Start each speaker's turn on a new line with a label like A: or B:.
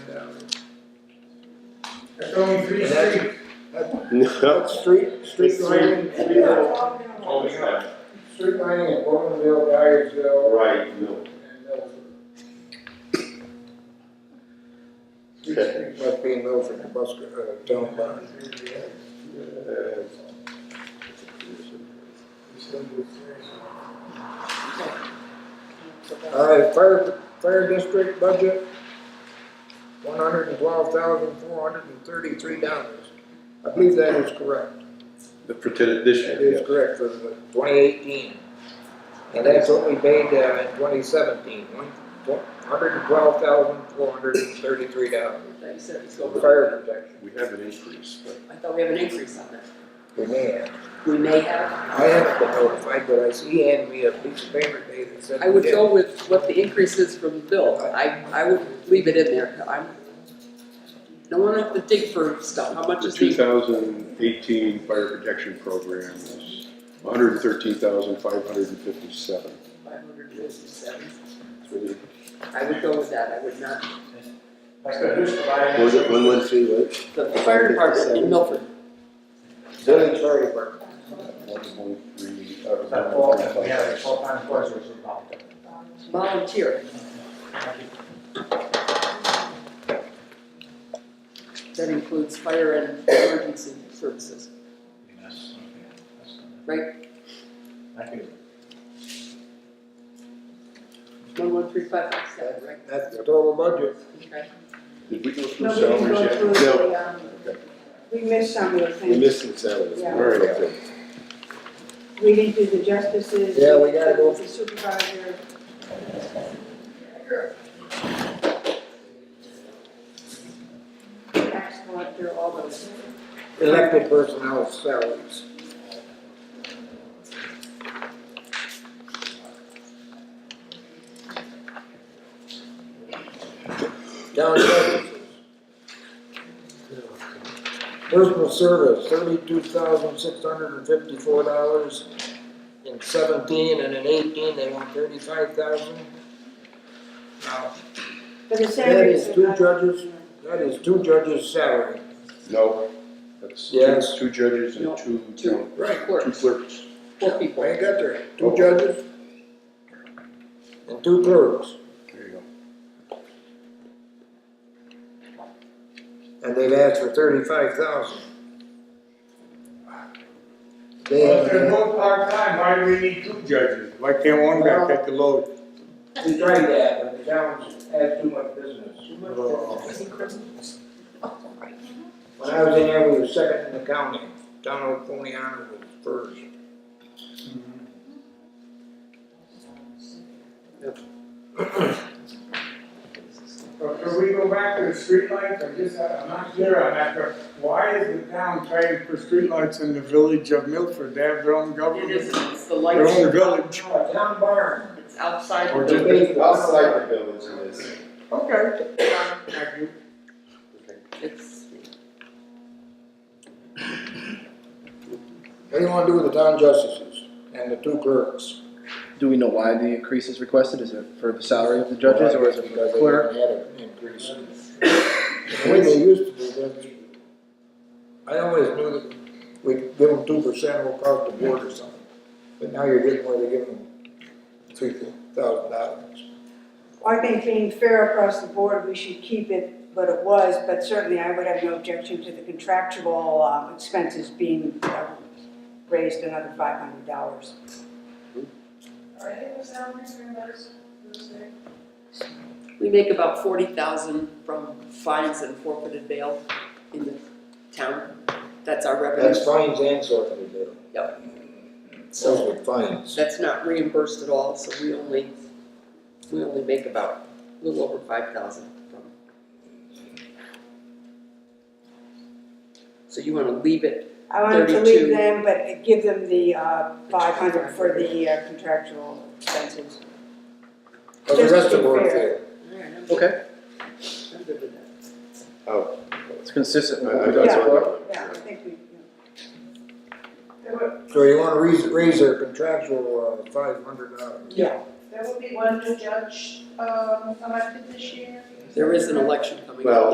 A: That's only three
B: That's-
A: streets.
B: What street, street
A: It's
B: lighting?
A: three- three little-
C: Oh, yeah,
A: Street lighting at Bowmanville, Dyersville,
C: right, no.
A: and Milford. Three
B: Okay,
A: streets.
B: Must be in Milford, it must, uh, down by. uh, All right, fire, fire district budget, one hundred and twelve thousand, four hundred and thirty-three dollars. I believe that is correct.
D: For t- this
B: That
D: year,
B: is correct for twenty eighteen. And that's what we paid uh, in twenty seventeen, one hundred and twelve thousand, four hundred and thirty-three dollars.
E: Like you said, it's going up.
B: Fire protection,
D: we have an increase, but
E: I thought we have an increase on that.
B: we may have.
E: We may have.
B: I haven't been notified, but I see he handed me a piece of paper today that said.
E: I would
B: we did.
E: go with what the increase is from Bill. I, I would leave it in there. I'm, no one have to dig for stuff. How much
D: the
E: is
D: two
E: the,
D: thousand eighteen fire protection program is one hundred and thirteen thousand, five hundred and fifty-seven.
E: five hundred fifty-seven? I would go with that. I would not,
A: Like the who's providing-
F: Was it one one three, what?
E: the fire department in Milford,
B: Village fire department,
A: That fall, we have a full-time foresters involved.
E: volunteer. That includes fire and emergency services.
A: Yes, okay, that's fine.
E: Right.
A: Thank you.
E: One, one, three, five, five, seven, right?
B: that's the total budget.
E: Okay.
D: Did we go through
G: No, we
D: salaries
G: didn't go
D: yet?
G: through
D: No.
G: the, um,
D: Okay.
G: we missed some of the
D: We
G: things.
D: missed the salaries.
G: Yeah.
D: All right, okay.
G: We didn't do the justices.
B: Yeah, we gotta go.
G: The supervisor. Tax collector, all those.
B: Elected personnel salaries. Town services. Personal service, thirty-two thousand six hundred and fifty-four dollars in seventeen, and in eighteen, they want thirty-five thousand. Now,
G: But the
B: that
G: salaries
B: is
G: are
B: two
G: not-
B: judges, that is two judges' salary.
D: No, that's
B: Yes.
D: two, two judges and
E: No,
D: two,
E: Two,
D: town-
B: Right.
D: two
E: clerks,
D: clerks.
E: four people.
B: I ain't got there, two judges and two clerks,
D: There you go.
B: and they've asked for thirty-five thousand. They
A: Well, if they're
B: have,
A: both part-time, why do we need two judges? Why can't one guy take the load?
B: we tried that, but the town's had too much business. When I was in there, we were second in the county, Donald Poniana was first.
A: But could we go back to the streetlights, I'm just, I'm not clear on that, but why is the town paying for streetlights in the village of Milford? They have their own
E: It is,
A: government,
E: it's the
A: their
E: lights,
A: own village.
B: Oh, town barn.
E: it's outside
A: Or
E: the
A: just-
E: building.
C: Outside the village it is.
A: Okay, thank you.
E: It's,
B: What do you wanna do with the town justices and the two clerks?
F: Do we know why the increase is requested? Is it for the salary of the judges or is it for
B: Because
F: the
B: they
F: clerk?
B: had an increase. The way they used to do that, I always knew that we'd give them two percent will across the board or something. But now you're getting where they give them three thousand dollars.
G: I think being fair across the board, we should keep it what it was, but certainly I would have no objection to the contractual um, expenses being uh, raised another five hundred dollars.
E: we make about forty thousand from fines and forfeited bail in the town. That's our
B: That's
E: revenue,
B: fines and forfeited bail.
E: Yep.
B: Those were fines.
E: that's not reimbursed at all, so we only, we only make about a little over five thousand from. So you wanna leave it,
G: I wanted to leave
E: 32.
G: them, but give them the uh, five hundred for the uh, contractual expenses.
B: But the rest of the board
G: Just be
B: failed.
E: alright, I'm good,
F: Okay,
E: I'm good with that.
D: Oh.
F: it's consistent with
D: I-
F: what
D: I
F: we
D: thought
G: Yeah.
F: done
D: so.
F: before.
G: Yeah, I think we, yeah.
H: There will,
B: So you wanna raise, raise their contractual, uh, five hundred dollars?
G: Yeah.
H: there will be one new judge, um, elected this year.
E: There is an election coming up.
C: Well,